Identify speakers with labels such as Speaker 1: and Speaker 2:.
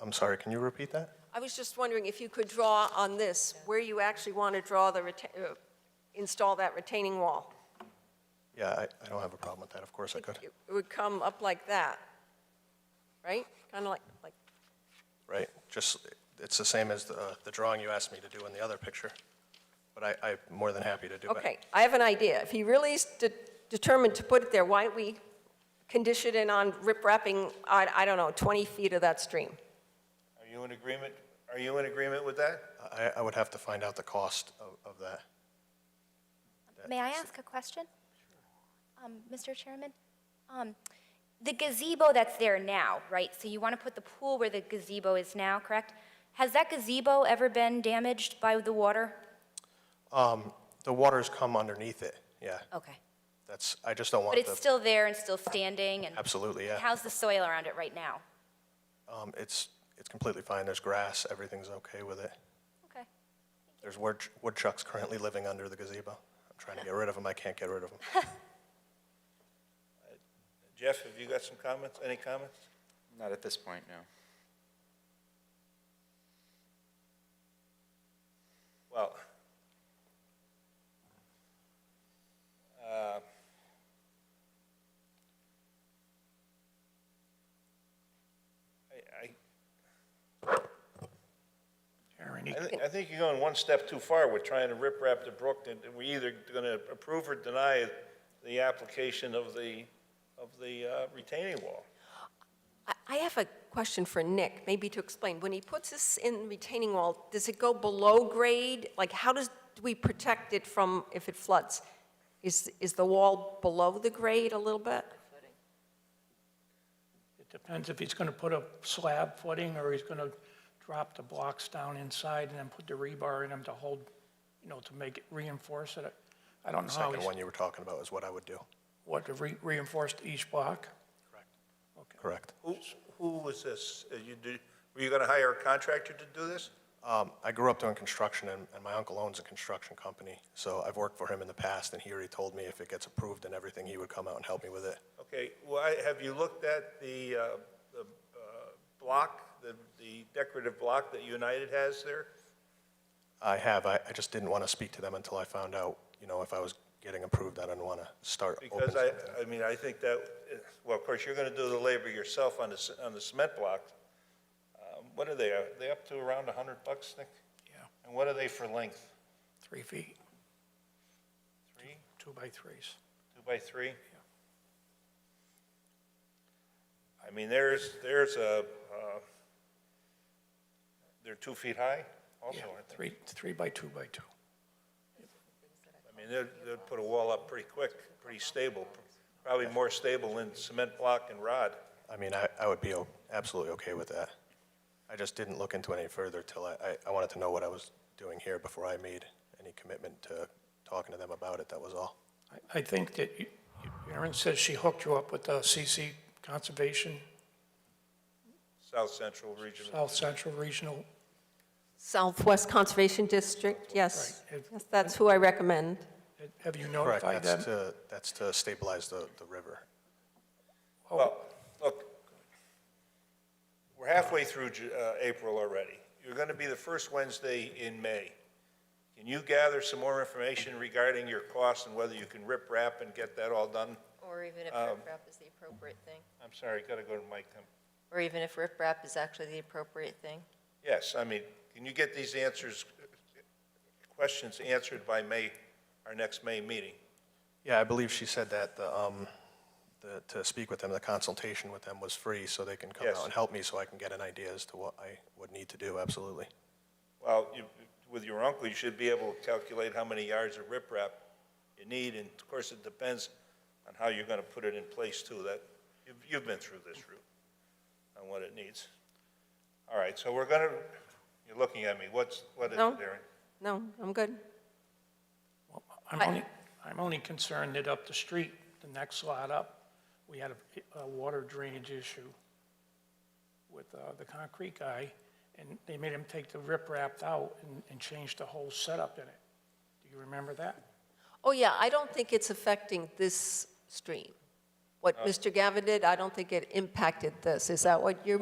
Speaker 1: I'm sorry, can you repeat that?
Speaker 2: I was just wondering if you could draw on this, where you actually want to draw the, reta- uh, install that retaining wall.
Speaker 1: Yeah, I, I don't have a problem with that, of course I could,
Speaker 2: It would come up like that, right? Kind of like, like,
Speaker 1: right? Just, it's the same as the, uh, the drawing you asked me to do in the other picture, but I, I'm more than happy to do it.
Speaker 2: okay, I have an idea. If he really is de- determined to put it there, why don't we condition it on riprapping, I, I don't know, 20 feet of that stream?
Speaker 3: Are you in agreement, are you in agreement with that?
Speaker 1: I, I would have to find out the cost of, of that.
Speaker 4: May I ask a question? Um, Mr. Chairman, um, the gazebo that's there now, right, so you want to put the pool where the gazebo is now, correct? Has that gazebo ever been damaged by the water?
Speaker 1: Um, the water's come underneath it, yeah.
Speaker 4: Okay.
Speaker 1: That's, I just don't want
Speaker 4: Oh. But
Speaker 1: the.
Speaker 4: it's still there and still standing, and
Speaker 1: Absolutely, yeah.
Speaker 4: how's the soil around it right now?
Speaker 1: Um, it's, it's completely fine, there's grass, everything's okay with it.
Speaker 4: Okay.
Speaker 1: There's wood- woodchucks currently living under the gazebo. I'm trying to get rid of them, I can't get rid of them.
Speaker 3: Jeff, have you got some comments, any comments?
Speaker 5: Not at this point, no.
Speaker 3: Well, uh, I, I, I thi- I think you're going one step too far with trying to rip rap the brook, and we're either going to approve or deny the application of the, of the uh, retaining wall.
Speaker 2: I- I have a question for Nick, maybe to explain. When he puts this in retaining wall, does it go below grade? Like, how does, do we protect it from if it floods? Is, is the wall below the grade a little bit?
Speaker 6: It depends if he's going to put a slab footing or he's going to drop the blocks down inside and then put the rebar in them to hold, you know, to make it reinforce it. I don't
Speaker 1: The
Speaker 6: know how
Speaker 1: second
Speaker 6: he's,
Speaker 1: one you were talking about is what I would do,
Speaker 6: what, to re- reinforce each block?
Speaker 1: correct?
Speaker 3: Who, who was this? Uh, You do, were you going to hire a contractor to do this?
Speaker 1: Um, I grew up doing construction, and, and my uncle owns a construction company, so I've worked for him in the past, and he already told me if it gets approved and everything, he would come out and help me with it.
Speaker 3: Okay, why, have you looked at the, uh, the uh, block, the the decorative block that United has there?
Speaker 1: I have, I, I just didn't want to speak to them until I found out, you know, if I was getting approved, I didn't want to start. open
Speaker 3: Because I,
Speaker 1: something.
Speaker 3: I mean, I think that, well, of course, you're going to do the labor yourself on the, c- on the cement block. Um, What are they, are they up to around 100 bucks, Nick?
Speaker 6: Yeah,
Speaker 3: And what are they for length?
Speaker 6: three feet,
Speaker 3: Three,
Speaker 6: two by threes.
Speaker 3: two by three? I mean, there's, there's a, uh, they're two feet high also,
Speaker 6: Yeah,
Speaker 3: aren't they?
Speaker 6: three, three by two by two.
Speaker 3: I mean, they'd, they'd put a wall up pretty quick, pretty stable, probably more stable than cement block and rod.
Speaker 1: I mean, I, I would be o- absolutely okay with that. I just didn't look into it any further till I, I, I wanted to know what I was doing here before I made any commitment to talking to them about it, that was all.
Speaker 6: I- I think that you- Erin says she hooked you up with the CC Conservation,
Speaker 3: South Central Regional,
Speaker 6: South Central Regional.
Speaker 2: Southwest Conservation District, yes.
Speaker 6: Right.
Speaker 2: Yes, That's who I recommend.
Speaker 6: Have you
Speaker 1: Correct,
Speaker 6: notified
Speaker 1: that's uh,
Speaker 6: them?
Speaker 1: to, that's to stabilize the, the river.
Speaker 3: well, look, we're halfway through Ju- uh, April already. You're gonna be the first Wednesday in May. Can you gather some more information regarding your costs and whether you can rip wrap and get that all done?
Speaker 7: Or even if riprap is the appropriate thing,
Speaker 3: I'm sorry, gotta go to Mike. um,
Speaker 7: or even if riprap is actually the appropriate thing.
Speaker 3: Yes, I mean, can you get these answers, questions answered by May, our next May meeting?
Speaker 1: Yeah, I believe she said that the, um, the, to speak with them, the consultation with them was free, so they can come
Speaker 3: Yes.
Speaker 1: out and help me, so I can get an idea as to what I would need to do, absolutely.
Speaker 3: Well, you, with your uncle, you should be able to calculate how many yards of riprap you need, and of course, it depends on how you're gonna put it in place too, that, you've, you've been through this route, on what it needs. All right, so we're gonna, you're looking at me, what's, what is it,
Speaker 2: No.
Speaker 3: Darren?
Speaker 2: No, I'm good.
Speaker 6: Well, I'm
Speaker 2: I-
Speaker 6: only, I'm only concerned that up the street, the next lot up, we had a, a water drainage issue with, uh, the concrete guy, and they made him take the riprap out and, and change the whole setup in it. Do you remember that?
Speaker 2: Oh, yeah, I don't think it's affecting this stream. What Mr. Gavin did, I don't think it impacted this. Is that what you're